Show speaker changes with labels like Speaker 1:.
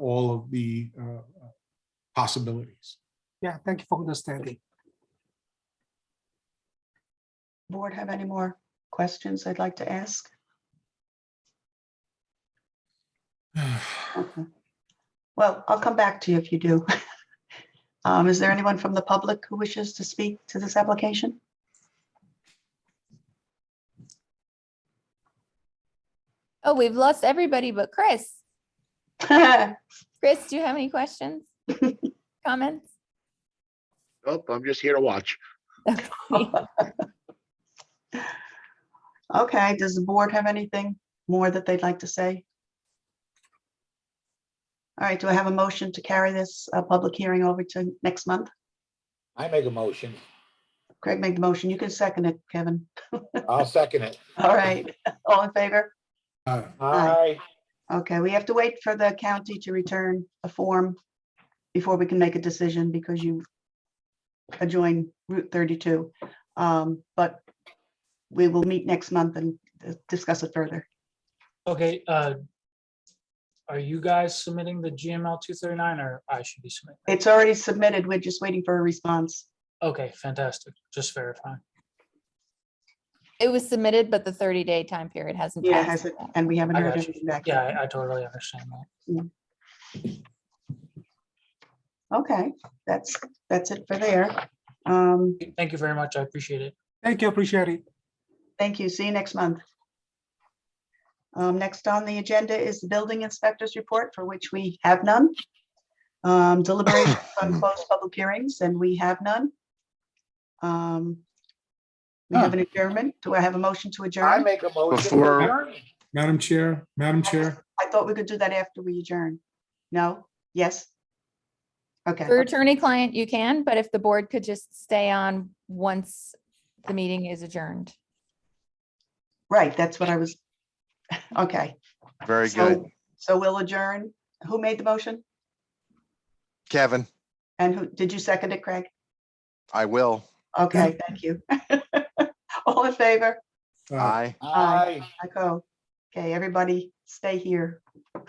Speaker 1: all of the uh, possibilities.
Speaker 2: Yeah, thank you for understanding.
Speaker 3: Board have any more questions they'd like to ask? Okay. Well, I'll come back to you if you do. Um, Is there anyone from the public who wishes to speak to this application?
Speaker 4: Oh, we've lost everybody but Chris.
Speaker 3: All
Speaker 4: Chris, do you have any questions? Comments?
Speaker 5: Nope, I'm just here to watch.
Speaker 3: Okay, does the board have anything more that they'd like to say? All right, do I have a motion to carry this uh, public hearing over to next month?
Speaker 6: I make a motion.
Speaker 3: Craig made the motion. You can second it, Kevin.
Speaker 6: I'll second it.
Speaker 3: All right, all in favor?
Speaker 1: Uh,
Speaker 6: Aye.
Speaker 3: Okay, we have to wait for the county to return a form before we can make a decision because you adjoin Route 32. Um, But we will meet next month and uh, discuss it further.
Speaker 7: Okay, uh, are you guys submitting the GML two thirty-nine or I should be submitting?
Speaker 3: It's already submitted. We're just waiting for a response.
Speaker 7: Okay, fantastic. Just verifying.
Speaker 4: It was submitted, but the thirty day time period hasn't
Speaker 3: Yeah, has
Speaker 4: passed.
Speaker 3: it- and we haven't
Speaker 7: I
Speaker 3: heard
Speaker 7: got you.
Speaker 3: anything back.
Speaker 7: Yeah,
Speaker 3: yet.
Speaker 7: I- I totally understand that.
Speaker 3: Okay, that's, that's it for there. Um,
Speaker 7: Thank you very much. I appreciate it.
Speaker 2: Thank you, appreciate it.
Speaker 3: Thank you. See you next month. Um, Next on the agenda is the building inspector's report, for which we have none. Um, Deliberations on closed public hearings, and we have none. Um, We have an adjournment. Do I have a motion to
Speaker 6: I
Speaker 3: adjourn?
Speaker 6: make a motion.
Speaker 5: Before-
Speaker 1: Madam Chair, Madam Chair,
Speaker 3: I thought we could do that after we adjourn. No? Yes? Okay,
Speaker 4: For attorney client, you can, but if the board could just stay on once the meeting is adjourned.
Speaker 3: right, that's what I was, okay.
Speaker 8: Very
Speaker 3: so-
Speaker 8: good.
Speaker 3: So we'll adjourn. Who made the motion?
Speaker 8: Kevin,
Speaker 3: And who, did you second it, Craig?
Speaker 8: I will.
Speaker 3: Okay, thank you. All in favor?
Speaker 1: uh,
Speaker 8: Aye.
Speaker 6: Aye.
Speaker 3: I go. Okay, everybody, stay here.